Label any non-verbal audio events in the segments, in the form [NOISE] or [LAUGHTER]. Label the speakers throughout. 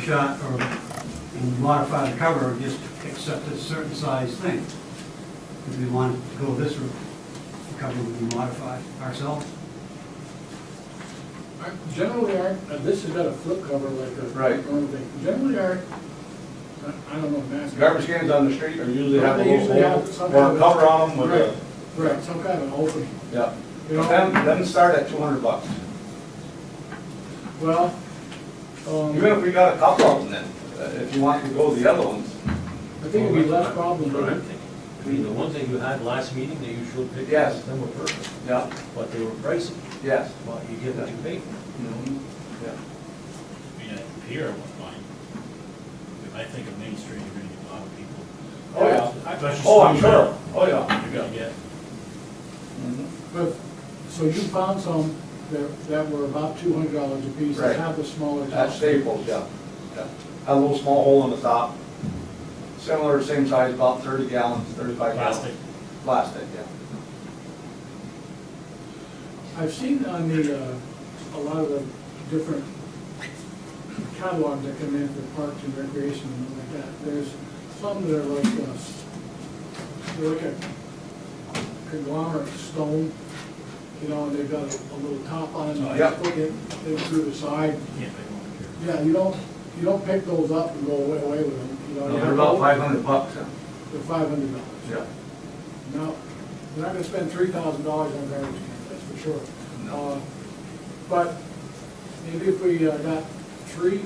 Speaker 1: shot or and modify the cover, or just accept a certain size thing. If we want to go this route, the cover would be modified ourselves.
Speaker 2: I- Generally, our, uh, this has got a flip cover like a.
Speaker 3: Right.
Speaker 2: normal thing. Generally, our, I- I don't know, mask.
Speaker 3: Garbage cans on the street are usually have a
Speaker 2: They usually
Speaker 3: little
Speaker 2: have some
Speaker 3: hole or
Speaker 2: kind
Speaker 3: a
Speaker 2: of-
Speaker 3: cover on them with a,
Speaker 2: Right, right, some kind of an opening,
Speaker 3: yeah.
Speaker 2: you know?
Speaker 3: Them, them start at two hundred bucks.
Speaker 2: Well,
Speaker 3: Even
Speaker 2: um,
Speaker 3: if we got a couple of them then, uh, if you want to go the other ones.
Speaker 2: I think it'd be less problem,
Speaker 4: That's what I'm
Speaker 2: but
Speaker 4: thinking. I mean, the ones that you had last meeting that you showed pictures,
Speaker 3: Yes.
Speaker 4: of, them were perfect,
Speaker 3: Yeah,
Speaker 4: but they were pricey.
Speaker 3: yes.
Speaker 4: Well, you get what you pay for.
Speaker 2: Mm-hmm.
Speaker 3: Mhm, yeah.
Speaker 5: Yeah, here was mine. I think of Main Street, you're gonna get a lot of people.
Speaker 3: Oh, yeah.
Speaker 5: Especially
Speaker 3: Oh, I'm
Speaker 5: Stone
Speaker 3: sure.
Speaker 5: Hill.
Speaker 3: Oh, yeah.
Speaker 5: You're gonna get,
Speaker 3: Mhm.
Speaker 2: but, so you found some that, that were about two hundred dollars a piece, that
Speaker 3: Right.
Speaker 2: have the smaller
Speaker 3: At
Speaker 2: top.
Speaker 3: Staples, yeah. yeah. Had a little small hole in the top. Similar, same size, about thirty gallons, thirty-five gallons.
Speaker 5: Plastic.
Speaker 3: Plastic, yeah.
Speaker 2: I've seen on the, uh, a lot of the different catalogs that come in for parks and recreation and like that, there's some that are like, uh, s- they're like a conglomerate stone, you know, and they've got a a little top on it, and
Speaker 3: Oh, Yeah.
Speaker 2: they put it, they through the side.
Speaker 5: yeah, they won't care.
Speaker 2: Yeah, you don't, you don't pick those up and go away, away with them, you know. you
Speaker 3: They're
Speaker 2: have
Speaker 3: about
Speaker 2: to-
Speaker 3: five hundred bucks, yeah.
Speaker 2: They're five hundred dollars.
Speaker 3: yeah.
Speaker 2: No, we're not gonna spend three thousand dollars on garbage cans, that's for sure.
Speaker 3: No.
Speaker 2: Uh, But maybe if we uh, got three,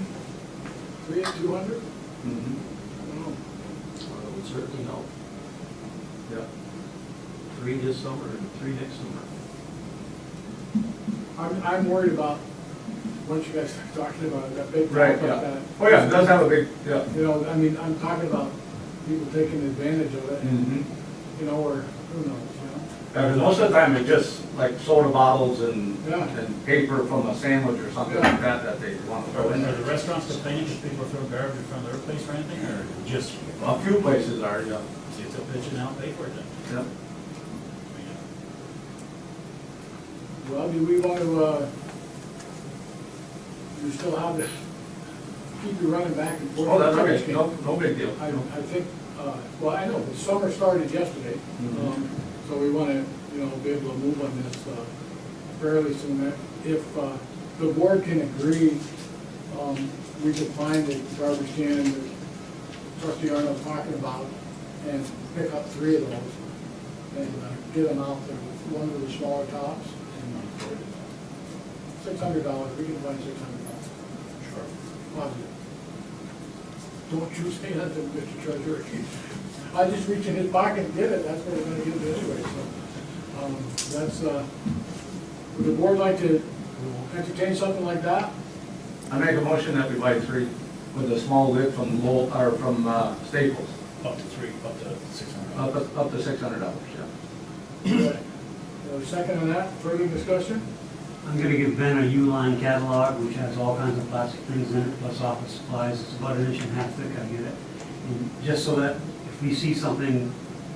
Speaker 2: three at two hundred?
Speaker 3: Mhm,
Speaker 4: Well, it would certainly help.
Speaker 3: Yeah.
Speaker 4: Three this summer and three next summer.
Speaker 2: I'm, I'm worried about, once you guys start talking about that big
Speaker 3: Right,
Speaker 2: problem like
Speaker 3: yeah.
Speaker 2: that.
Speaker 3: Oh, yeah, it does have a big, yeah.
Speaker 2: You know, I mean, I'm talking about people taking advantage of
Speaker 3: Mm.
Speaker 2: it, and, you know, or who knows, you
Speaker 3: And most of the time, it's just like soda bottles and,
Speaker 2: Yeah.
Speaker 3: and paper from a sandwich or something
Speaker 2: Yeah.
Speaker 3: like that, that they want to throw in
Speaker 5: Are
Speaker 3: there.
Speaker 5: the restaurants complaining because people throw garbage in front of their place or anything, or just,
Speaker 3: A few places are, yeah.
Speaker 5: see, it's a pitch and out, pay for it then?
Speaker 3: Yeah.
Speaker 5: I mean,
Speaker 2: know? Well, do we want to, uh, you still have to [LAUGHS] keep you running back and forth?
Speaker 3: Oh, that's
Speaker 2: Garbage
Speaker 3: okay,
Speaker 2: can.
Speaker 3: no, no big deal.
Speaker 2: I, I think, uh, well, I know, the summer started yesterday,
Speaker 3: Mhm.
Speaker 2: um, so we want to, you know, be able to move on this uh, fairly soon. If uh, the board can agree, um, we could find the garbage can that trustee Arnold talking about and pick up three of those and uh, get them out there with one of the smaller tops. Six hundred dollars, we can find six hundred dollars.
Speaker 3: Sure.
Speaker 2: Positive. Don't you say nothing, Mr. Treasurer. I just reached in his pocket and did it, that's what we're gonna give it anyway, so. um, That's, uh, would the board like to entertain something like that?
Speaker 3: I make a motion that we buy three with a small lid from Lowell, or from uh, Staples,
Speaker 5: Up to three, up to six hundred.
Speaker 3: up, up to six hundred dollars, yeah.
Speaker 2: Uh, Second on that, further discussion?
Speaker 1: I'm gonna give Ben a U-line catalog, which has all kinds of plastic things in it, plus office supplies, it's about an inch and a half thick, I get it. And just so that if we see something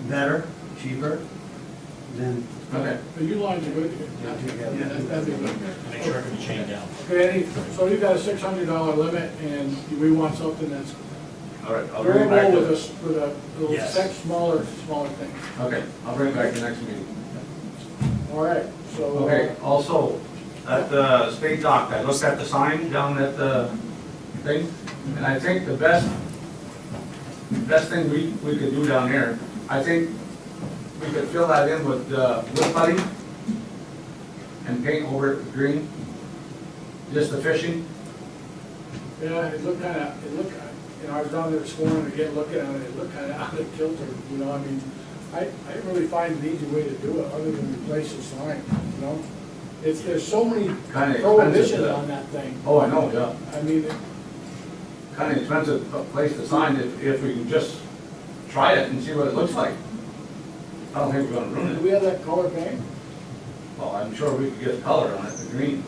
Speaker 1: better, cheaper, then
Speaker 3: Okay.
Speaker 2: But you lines are good.
Speaker 3: Yeah, yeah.
Speaker 2: That- that'd be good.
Speaker 5: Make sure it can be chained down.
Speaker 2: Okay, any- so you've got a six hundred dollar limit, and we want something that's
Speaker 3: All right, I'll bring it back
Speaker 2: variable with
Speaker 3: to
Speaker 2: a,
Speaker 3: this.
Speaker 2: s- with a, with a
Speaker 5: Yes.
Speaker 2: sec- smaller, smaller thing.
Speaker 3: Okay, I'll bring it back to next meeting.
Speaker 2: All right, so. uh,
Speaker 3: Okay, also, at the state dock, I looked at the sign down at the thing, and I think the best, best thing we, we could do down there, I think we could fill that in with, uh, wood putty and paint over it with green, just the fishing.
Speaker 2: Yeah, it looked kind of, it looked, you know, I was down there this morning again looking at it, it [LAUGHS] looked kind of out of kilter, you know, I mean, I, I didn't really find an easy way to do it other than replace the sign, you know? It's, there's so many
Speaker 3: Kinda expensive,
Speaker 2: prohibitions
Speaker 3: yeah.
Speaker 2: on that thing.
Speaker 3: Oh, I know, yeah.
Speaker 2: I mean,
Speaker 3: Kinda expensive uh, place to sign if, if we can just try it and see what it looks like. I don't think we're gonna
Speaker 2: do
Speaker 3: ruin
Speaker 2: we
Speaker 3: it.
Speaker 2: have that color paint?
Speaker 3: Well, I'm sure we could get color on it, the green.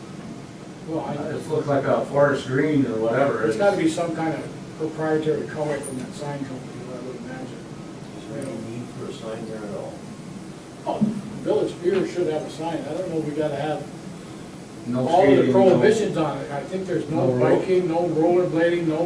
Speaker 2: Well, I,
Speaker 3: It just looks like a forest green or whatever.
Speaker 2: there's gotta be some kind of proprietary color from that sign company, I would imagine.
Speaker 4: Is there any need for a sign there at all?
Speaker 2: Oh, Village Beer should have a sign, I don't know, we gotta have
Speaker 3: No
Speaker 2: all of the
Speaker 3: skating, no-
Speaker 2: prohibitions on it, I think there's no
Speaker 3: No roll-
Speaker 2: biking, no rollerblading, no